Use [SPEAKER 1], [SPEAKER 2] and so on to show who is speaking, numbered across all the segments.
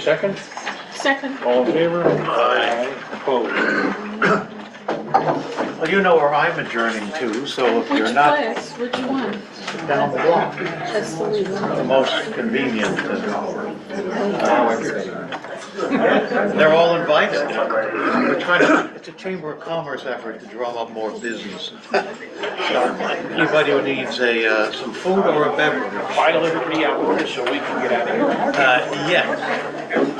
[SPEAKER 1] second?
[SPEAKER 2] Second.
[SPEAKER 1] All in favor?
[SPEAKER 3] Aye.
[SPEAKER 1] Opposed?
[SPEAKER 3] Well, you know where I'm adjourning to, so if you're
[SPEAKER 2] Which
[SPEAKER 3] not
[SPEAKER 2] class, which one?
[SPEAKER 3] down the block,
[SPEAKER 2] That's the legal.
[SPEAKER 3] the most convenient. uh,
[SPEAKER 1] Now everybody.
[SPEAKER 3] They're all invited. We're trying to, it's a Chamber of Commerce effort to drum up more business. Anybody who needs a, uh, some food or a beverage,
[SPEAKER 1] File everybody out with this so we can get out of here.
[SPEAKER 3] uh, yes. Um,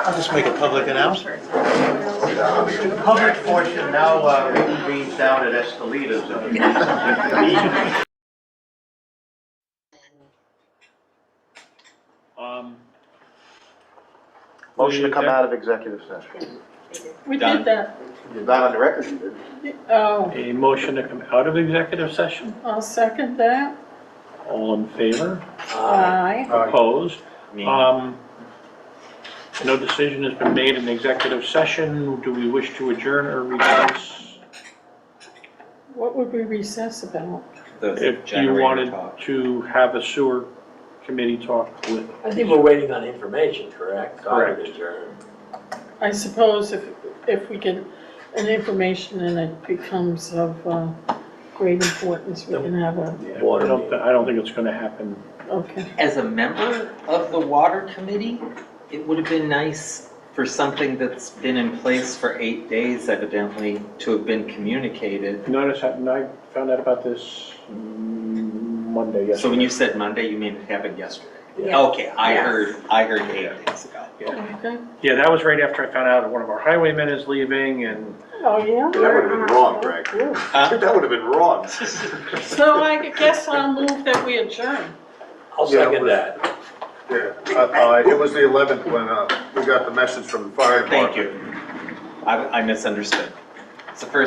[SPEAKER 3] I'll just make a public announcement. The Public portion now uh, reconvenes down at Escalitas. everybody.
[SPEAKER 1] Um,
[SPEAKER 4] Motion to come out of executive session.
[SPEAKER 2] We
[SPEAKER 1] Done.
[SPEAKER 2] did that.
[SPEAKER 4] Not on the record, you did.
[SPEAKER 2] Oh,
[SPEAKER 1] A motion to come out of executive session?
[SPEAKER 2] I'll second that.
[SPEAKER 1] All in favor?
[SPEAKER 5] Uh,
[SPEAKER 2] Aye.
[SPEAKER 1] Opposed? Um, no decision has been made in executive session. Do we wish to adjourn or recess?
[SPEAKER 2] What would we recess about?
[SPEAKER 1] If you wanted to have a sewer committee talk with,
[SPEAKER 5] I think we're waiting on information, correct? So I would
[SPEAKER 1] Correct.
[SPEAKER 5] adjourn.
[SPEAKER 2] I suppose if, if we get an information and it becomes of uh, great importance, we can have a,
[SPEAKER 1] I
[SPEAKER 5] Water
[SPEAKER 1] don't, I don't think it's gonna happen.
[SPEAKER 2] okay.
[SPEAKER 6] As a member of the water committee, it would have been nice for something that's been in place for eight days evidently to have been communicated.
[SPEAKER 1] Notice, I I found out about this mm, Monday, yesterday.
[SPEAKER 6] So when you said Monday, you mean it happened yesterday?
[SPEAKER 5] Yeah.
[SPEAKER 6] Okay, I
[SPEAKER 7] Yes.
[SPEAKER 6] heard, I heard eight days ago.
[SPEAKER 2] Okay.
[SPEAKER 1] Yeah, that was right after I found out one of our highwaymen is leaving and
[SPEAKER 2] Oh, yeah?
[SPEAKER 4] That would have been wrong, Greg. That would have been wrong.
[SPEAKER 2] So I guess I'll move that we adjourn.
[SPEAKER 5] I'll
[SPEAKER 8] Yeah,
[SPEAKER 5] second
[SPEAKER 8] we're-
[SPEAKER 5] that.
[SPEAKER 8] Yeah, uh, uh, it was the eleventh when, uh, we got the message from the fire department.
[SPEAKER 6] Thank you. I, I misunderstood. It's the first